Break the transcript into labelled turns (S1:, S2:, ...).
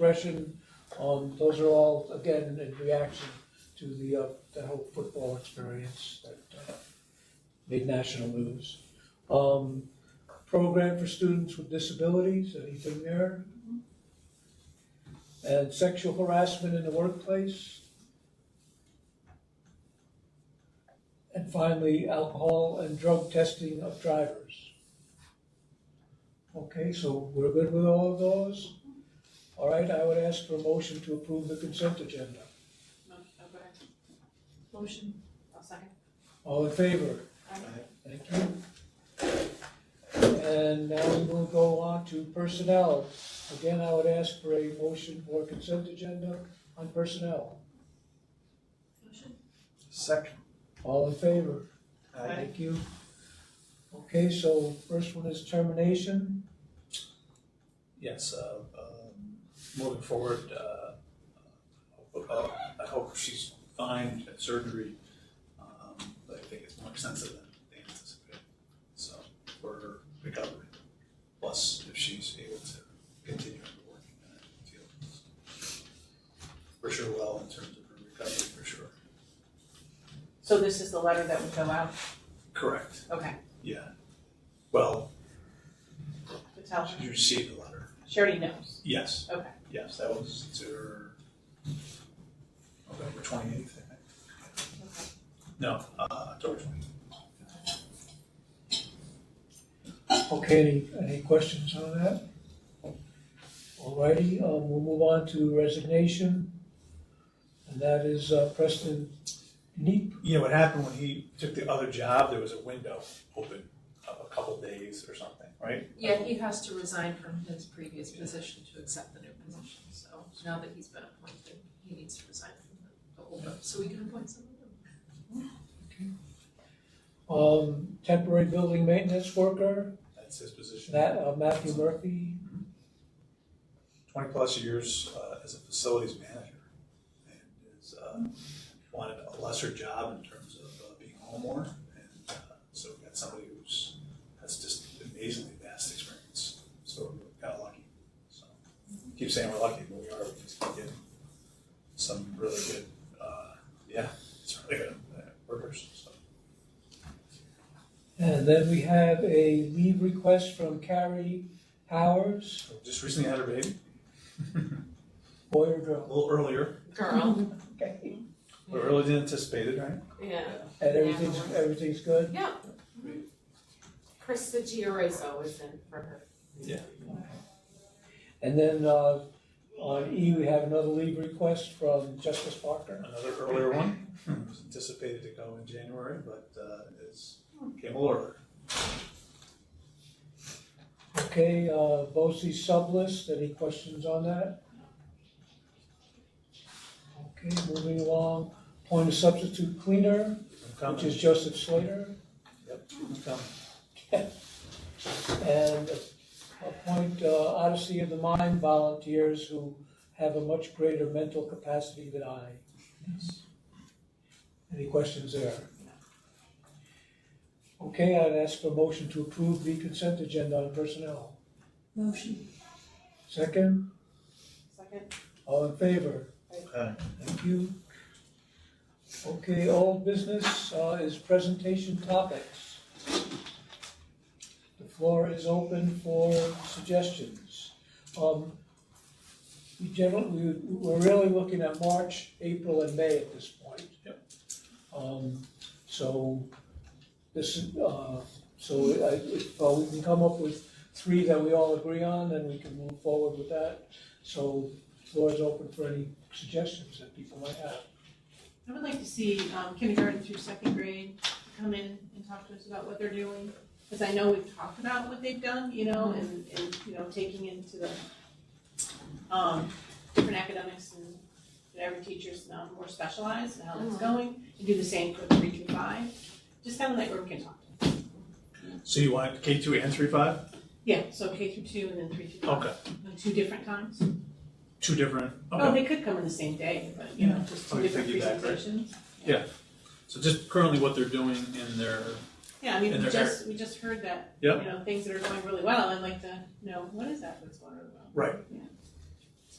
S1: expression. Um, those are all, again, in reaction to the, uh, the whole football experience that, uh, made national news. Um, program for students with disabilities, anything there? And sexual harassment in the workplace. And finally, alcohol and drug testing of drivers. Okay, so we're good with all of those? All right, I would ask for a motion to approve the consent agenda.
S2: Motion. I'll second.
S1: All in favor?
S2: Aye.
S1: Thank you. And now we will go on to personnel. Again, I would ask for a motion for consent agenda on personnel.
S2: Motion.
S3: Second.
S1: All in favor?
S2: Aye.
S1: Thank you. Okay, so first one is termination.
S3: Yes, uh, um, moving forward, uh, uh, I hope she's fine at surgery. Um, But I think it's more extensive than they anticipated, so for her recovery. Plus, if she's able to continue working in that field. For sure, well, in terms of her recovery, for sure.
S2: So this is the letter that would go out,
S3: Correct,
S2: okay,
S3: yeah. Well,
S2: to tell her,
S3: you received the letter.
S2: she already knows,
S3: Yes.
S2: okay.
S3: Yes, that was to November twenty-eighth, I think. No, uh, October twenty-eighth.
S1: Okay, any, any questions on that? All righty, um, we'll move on to resignation. And that is uh, Preston Neep.
S3: You know, what happened when he took the other job, there was a window open of a couple days or something, right?
S4: Yeah, he has to resign from his previous position to accept the new position, so now that he's been appointed, he needs to resign from the- the old one, so we can appoint someone new.
S1: Um, temporary building maintenance worker,
S3: That's his position.
S1: that, uh, Matthew Murphy.
S3: Twenty-plus years, uh, as a facilities manager. And is, uh, wanted a lesser job in terms of uh, being a homeowner. And, uh, so we got somebody who's, has just amazingly vast experience. So we're kind of lucky. So Keep saying we're lucky, but we are, we just keep getting some really good, uh, yeah, it's really good uh, workers, so.
S1: And then we have a leave request from Carrie Powers,
S3: So Just recently had a baby,
S1: Boyer
S3: a
S1: Drill.
S3: little earlier,
S4: Girl,
S1: Okay.
S3: a little earlier than anticipated, right?
S4: yeah.
S1: And everything's, everything's good?
S4: Yeah. Krista Giorizzo is in for her.
S1: And then, uh, on E, we have another leave request from Justice Parker.
S3: Another earlier one, It was anticipated to go in January, but, uh, it's, came a little earlier.
S1: Okay, uh, BOSI sublist, any questions on that? Okay, moving along, point of substitute cleaner,
S3: Coming.
S1: which is Joseph Slater.
S3: Yep, coming.
S1: and appoint uh, Odyssey of the Mind volunteers who have a much greater mental capacity than I. Any questions there? Okay, I'd ask for a motion to approve the consent agenda on personnel.
S2: Motion.
S1: Second,
S2: Second.
S1: all in favor?
S3: Aye.
S1: Thank you. Okay, old business uh, is presentation topics. The floor is open for suggestions. Um, We generally, we- we're really looking at March, April, and May at this point.
S3: Yep.
S1: Um, So this, is, uh, so I- if uh, we can come up with three that we all agree on, then we can move forward with that. So floor is open for any suggestions that people might have.
S2: I would like to see um, kindergarten through second grade come in and talk to us about what they're doing, because I know we've talked about what they've done, you know, and, and, you know, taking into the, um, different academics and whatever teachers now more specialized, and how that's
S4: Mhm.
S2: going, and do the same for three through five, just kind of like where we can talk to them.
S3: So you want K two and three five?
S2: Yeah, so K through two and then three through five,
S3: Okay,
S2: on two different times.
S3: two different,
S2: Oh,
S3: okay.
S2: they could come in the same day, but, you know, just two
S3: Okay,
S2: different
S3: piggyback, right?
S2: presentations.
S3: So just currently what they're doing in their,
S2: Yeah, I mean,
S3: And
S2: we
S3: they're
S2: just, we just heard that, you
S3: Yep.
S2: know, things that are going really well, I'd like to know, what is that that's going really well?
S3: Right.
S2: Yeah.